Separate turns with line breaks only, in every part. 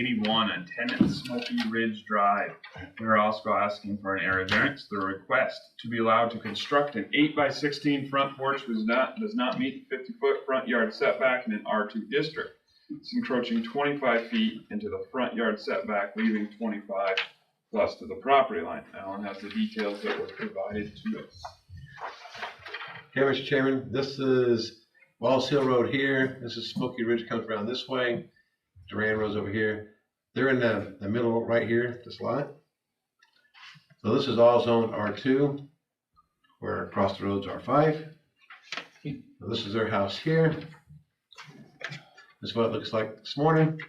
81 on 10 at Smoky Ridge Drive. We are also asking for an area variance. The request to be allowed to construct an eight by sixteen front porch was not, does not meet the fifty-foot front yard setback in an R two district. It's encroaching twenty-five feet into the front yard setback, leaving twenty-five plus to the property line. Alan has the details that were provided to us.
Okay, Mr. Chairman, this is Wallace Hill Road here, this is Smoky Ridge comes around this way, Duran Road's over here. They're in the, the middle right here, this lot. So this is all zoned R two, where across the roads R five. This is their house here. This is what it looks like this morning.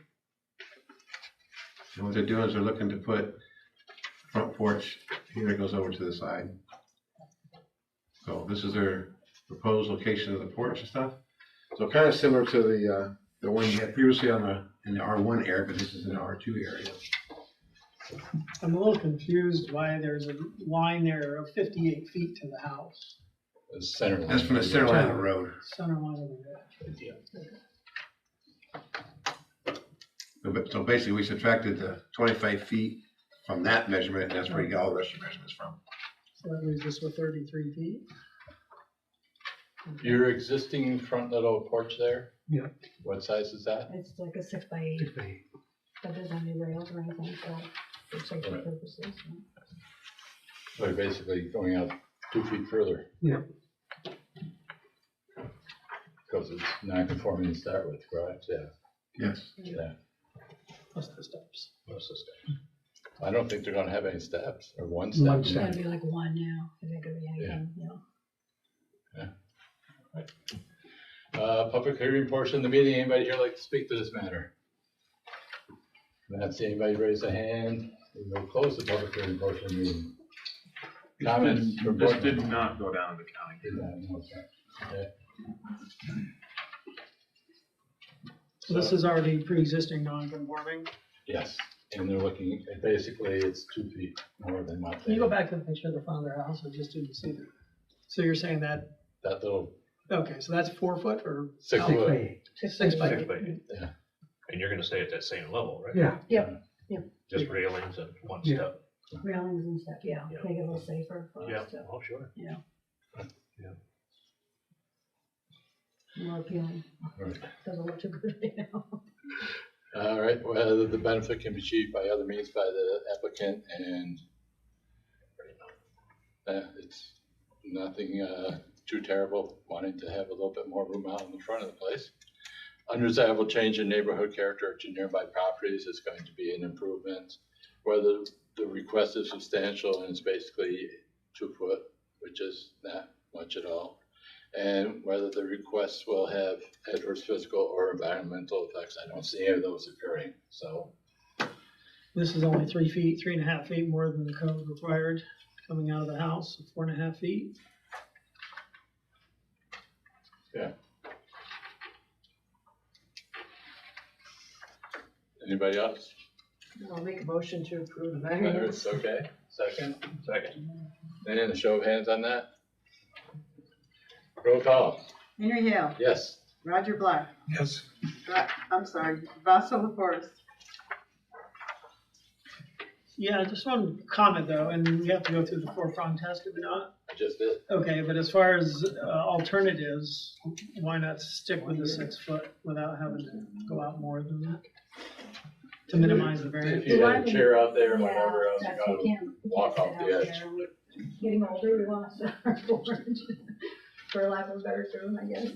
And what they're doing is they're looking to put front porch here, it goes over to the side. So this is their proposed location of the porch and stuff. So kind of similar to the, uh, the one you had previously on the, in the R one area, but this is in the R two area.
I'm a little confused why there's a line there of fifty-eight feet to the house,
The Center. line.
That's from the center line of the road.
center line of the
So ba- So basically, we subtracted the twenty-five feet from that measurement, and that's where you got all the rest of your measurements from.
so that leaves us with thirty-three feet.
Your existing front little porch there?
Yeah.
What size is that?
It's like a six by eight, but there's any rails or anything, so for safety
Right.
purposes. no.
So you're basically going out two feet further.
Yeah.
Because it's non-conforming to start with, correct? Yeah,
Yes.
yeah.
Plus the steps.
Most of the stuff. I don't think they're gonna have any steps or one
One
step.
It's
step.
gotta be like one now, if it could be anything, you know.
Uh, public hearing portion of the meeting. Anybody here like to speak to this matter? Not seeing anybody raise a hand. We'll close the public hearing portion of the meeting. Comments from
This
board
did
members?
not go down to the county.
Did not, no, okay. Okay.
So this is already pre-existing non-conforming.
Yes, and they're looking, basically, it's two feet more than what
Can
they,
you go back to the picture of the front of their house, I just didn't see that. So you're saying that,
that little
okay, so that's four foot or?
six
how-
foot.
Six by
Six
eight.
by eight.
Yeah.
And you're gonna stay at that same level, right?
Yeah,
Just railings and one
Yeah.
step.
Railings and stuff, yeah,
Yeah.
make it a little safer for
Yeah,
us to,
oh, sure.
more appealing,
Right.
doesn't look too good right now.
All right, whether the benefit can be achieved by other means by the applicant and uh, it's nothing uh, too terrible, wanting to have a little bit more room out in the front of the place. Undesirable change in neighborhood character to nearby properties is going to be an improvement. Whether the request is substantial and it's basically two foot, which is not much at all. And whether the requests will have adverse physical or environmental effects, I don't see any of those occurring, so.
This is only three feet, three and a half feet more than the code required, coming out of the house, four and a half feet.
Anybody else?
I'll make a motion to approve the variance.
It's okay, second,
Second.
and a show of hands on that. Roll call,
Henry Hill,
yes,
Roger Black,
Yes.
Ra- I'm sorry, Vassal LaForest.
Yeah, I just one comment though, and we have to go through the four-prong test, if not,
I just did,
Okay, but as far as uh, alternatives, why not stick with the six foot without having to go out more than that? To minimize the
if
variance.
you
Do
had
I-
a chair out there and
Yeah,
whatever else, you
that's-
got
we can't- we
walk
can't
off
sit
the
out
edge.
there. We're Getting older, we want to sit on our porch, for lack of a better term, I guess.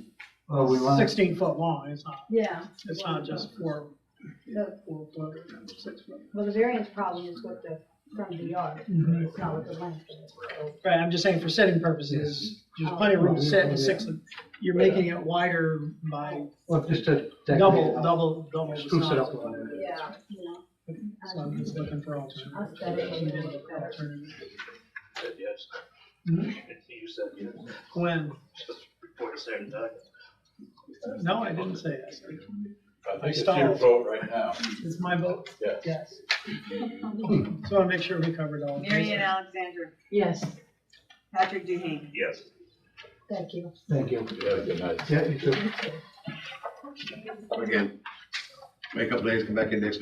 Well, we want,
Sixteen foot long, it's not,
Yeah.
it's not just four,
The-
four foot or six foot.
Well, the variance problem is with the front of the yard,
Mm-hmm.
Mhm.
it's not with the length of it, so.
Right, I'm just saying for sitting purposes, there's plenty of room to sit in six, you're making it wider by
well, just to.
double, double, double the
Spruce it up
size.
a little bit.
Yeah, you know.
So I'm just looking for alternatives.
Aesthetically, it'll look better.
Said yes.
Hmm?
You said yes,
When,
just before the second time.
no, I didn't say yes,
I think it's your
Stalled.
vote right now,
it's my vote,
yes.
yes. So I want to make sure we covered all. of these.
Marion Alexander,
Yes,
Patrick Duhane.
Yes.
thank you.
Thank you.
You have a good night.
Yeah, you too.
Again, make up days, come back in next week.